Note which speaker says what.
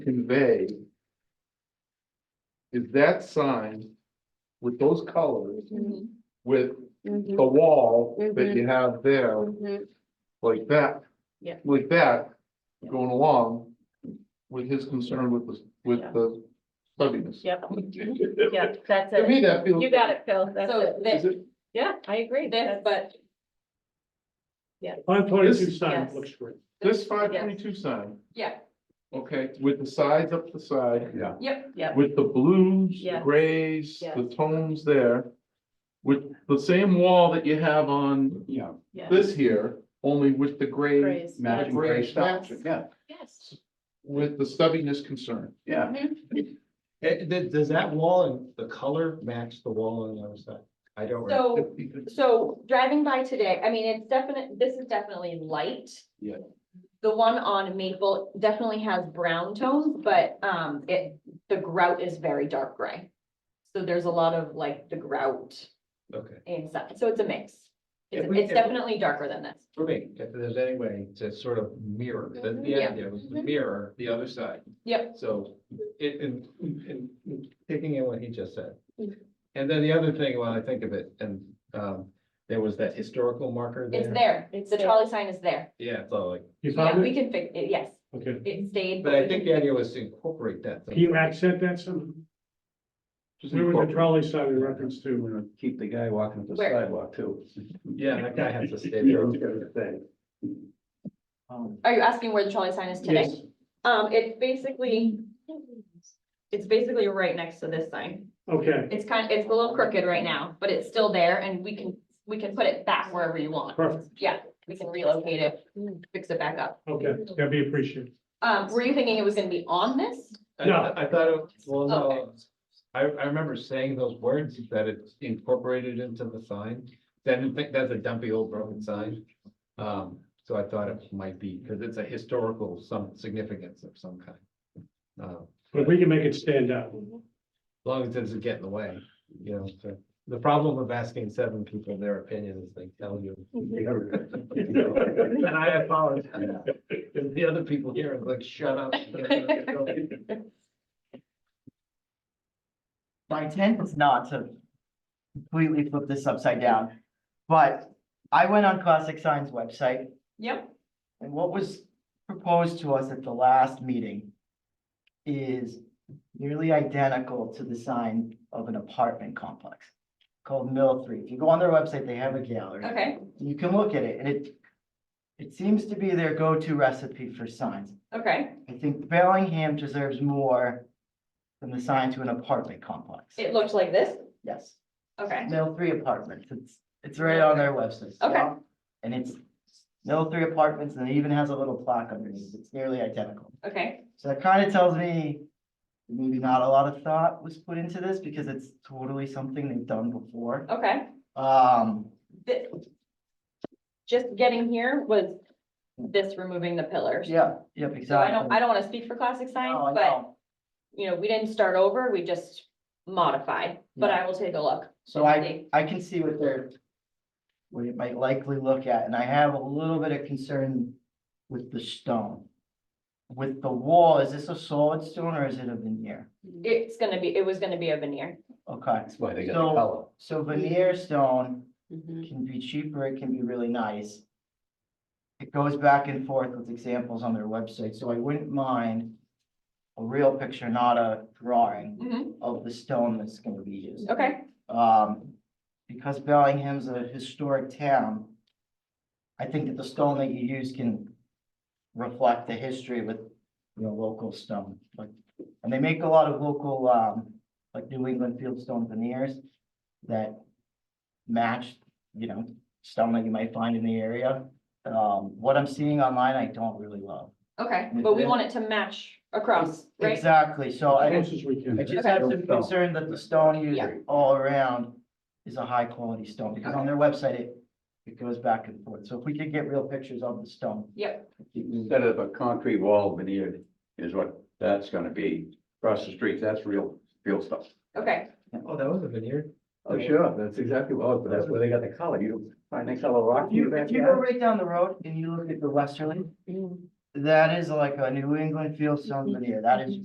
Speaker 1: convey is that sign with those colors,
Speaker 2: Mhm,
Speaker 1: with the
Speaker 2: mhm,
Speaker 1: wall that you have there,
Speaker 2: mhm.
Speaker 1: like that.
Speaker 2: Yeah.
Speaker 1: Like that,
Speaker 2: Yeah.
Speaker 1: going along with his concern with the, with
Speaker 2: Yeah.
Speaker 1: the stubbiness.
Speaker 2: Yep,
Speaker 1: Mm-hmm. To
Speaker 2: yep, that's it.
Speaker 1: me, that feels.
Speaker 2: You got it, Phil, that's
Speaker 3: So
Speaker 2: it.
Speaker 1: Is
Speaker 3: this,
Speaker 1: it-
Speaker 2: Yeah, I agree.
Speaker 3: this,
Speaker 2: That's-
Speaker 3: but
Speaker 4: On twenty-two
Speaker 1: This-
Speaker 4: sign
Speaker 2: yes.
Speaker 4: looks great.
Speaker 1: This five twenty-two sign,
Speaker 3: yeah,
Speaker 1: okay, with the sides up the side. Yeah.
Speaker 3: yep,
Speaker 2: Yep,
Speaker 1: With the blues, the
Speaker 2: Yes.
Speaker 1: grays, the
Speaker 2: Yes.
Speaker 1: tones there. With the same wall that you have on
Speaker 5: Yeah,
Speaker 2: yeah.
Speaker 1: this here, only with the gray,
Speaker 2: Praise, yeah.
Speaker 5: matching
Speaker 1: gray
Speaker 5: gray stuff,
Speaker 1: stuff.
Speaker 5: yeah,
Speaker 2: Yes,
Speaker 1: with the stubbiness concern.
Speaker 5: yeah.
Speaker 3: Mm-hmm.
Speaker 6: Eh, th- does that wall and the color match the wall on the other side? I don't. remember.
Speaker 3: so, so driving by today, I mean, it's definite, this is definitely light.
Speaker 5: Yeah.
Speaker 3: The one on Maple definitely has brown tones, but, um, it, the grout is very dark gray. So there's a lot of like the grout
Speaker 6: Okay,
Speaker 3: inside, so it's a mix. It's,
Speaker 6: If we-
Speaker 3: it's
Speaker 6: if we-
Speaker 3: definitely darker than this.
Speaker 6: for me, if there's any way to sort of mirror, the, the
Speaker 3: Mm-hmm, Yeah.
Speaker 6: idea was to
Speaker 2: Mhm.
Speaker 6: mirror the other side.
Speaker 3: Yep.
Speaker 6: So, it, in, in taking in what he just said.
Speaker 3: Mhm.
Speaker 6: And then the other thing, while I think of it, and, um, there was that historical marker there.
Speaker 3: It's there,
Speaker 2: It's
Speaker 3: the
Speaker 2: there.
Speaker 3: trolley sign is there.
Speaker 6: Yeah, so like,
Speaker 4: You
Speaker 3: Yeah,
Speaker 4: found
Speaker 3: we
Speaker 4: it?
Speaker 3: can fix, it. yes,
Speaker 4: Okay.
Speaker 3: it stayed.
Speaker 6: but I
Speaker 3: we
Speaker 6: think
Speaker 3: can
Speaker 6: the idea was to incorporate that.
Speaker 4: Can you accent that some,
Speaker 1: Just
Speaker 4: where was the
Speaker 1: incorporate-
Speaker 4: trolley sign in reference to?
Speaker 5: Keep the guy walking up the
Speaker 3: Where?
Speaker 5: sidewalk too.
Speaker 6: Yeah, that guy has to stay there.
Speaker 5: Thing.
Speaker 3: Are you asking where the trolley sign is today?
Speaker 4: Yes.
Speaker 3: Um, it's basically, it's basically right next to this sign.
Speaker 4: Okay,
Speaker 3: It's kind, it's a little crooked right now, but it's still there and we can, we can put it back wherever you want.
Speaker 4: Perfect.
Speaker 3: Yeah, we can relocate it, fix it back up.
Speaker 4: okay, that'd be appreciated.
Speaker 3: Um, were you thinking it was gonna be on this?
Speaker 6: I,
Speaker 4: No.
Speaker 6: I thought, it well, no,
Speaker 3: Okay.
Speaker 6: I, I remember saying those words, that it's incorporated into the sign. I didn't think that's a dumpy old broken sign. Um, so I thought it might be, because it's a historical, some significance of some kind. Uh,
Speaker 4: But we can make it stand out.
Speaker 2: Mm-hmm.
Speaker 6: As long as it doesn't get in the way, you know, so. The problem of asking seven people their opinion is they tell you. And I apologize. And the other people here are like, shut up.
Speaker 7: My intent is not to completely flip this upside down, but I went on Classic Signs website
Speaker 3: Yep.
Speaker 7: and what was proposed to us at the last meeting is nearly identical to the sign of an apartment complex called Mill Three. If you go on their website, they have a gallery.
Speaker 3: Okay,
Speaker 7: You can look at it and it, it seems to be their go-to recipe for signs.
Speaker 3: okay.
Speaker 7: I think Bellingham deserves more than the sign to an apartment complex.
Speaker 3: It looked like this?
Speaker 7: Yes.
Speaker 3: Okay,
Speaker 7: Mill three apartments, it's, it's right on their website. so-
Speaker 3: Okay.
Speaker 7: And it's Mill three apartments, and it even has a little plaque underneath, it's nearly identical.
Speaker 3: okay,
Speaker 7: So that kind of tells me maybe not a lot of thought was put into this, because it's totally something they've done before.
Speaker 3: okay.
Speaker 7: Um,
Speaker 3: Thi- Just getting here was this removing the pillars.
Speaker 7: yeah, yep,
Speaker 3: So I don't, I
Speaker 7: exactly.
Speaker 3: don't wanna speak for classic
Speaker 7: No,
Speaker 3: signs,
Speaker 7: I
Speaker 3: but
Speaker 7: know.
Speaker 3: you know, we didn't start over, we just modified, but I will take a look.
Speaker 7: So I, I can see what they're, what it might likely look at, and I have a little bit of concern with the stone. With the wall, is this a solid stone or is it a veneer?
Speaker 3: It's gonna be, it was gonna be a veneer.
Speaker 7: Okay,
Speaker 5: That's why they got
Speaker 7: So-
Speaker 5: the color.
Speaker 7: so veneer stone can be cheaper, it can be really nice. It goes back and forth with examples on their website, so I wouldn't mind a real picture, not a drawing
Speaker 3: Mhm,
Speaker 7: of the stone that's gonna be used.
Speaker 3: okay,
Speaker 7: um, because Bellingham's a historic town, I think that the stone that you use can reflect the history with, you know, local stone, like, and they make a lot of local, um, like New England fieldstone veneers that match, you know, stone that you might find in the area. Um, what I'm seeing online, I don't really love.
Speaker 3: okay, but we want it to match across, right?
Speaker 7: Exactly, so I
Speaker 4: Close as we can.
Speaker 7: I just have some concern that the stone used
Speaker 3: Yeah.
Speaker 7: all around is a high quality stone, because on their website, it, it goes back and forth, so if we could get real pictures of the stone.
Speaker 3: Yep,
Speaker 5: Instead of a concrete wall veneered is what that's gonna be. Across the street, that's real, real stuff.
Speaker 3: okay,
Speaker 6: Oh, that was a veneer.
Speaker 5: Oh, sure, that's exactly what, that's where they got the color. You don't find that Mm. color rock.
Speaker 7: If you, if you go right down the road and you look at the westerly, That is like a New England field stone veneer. That is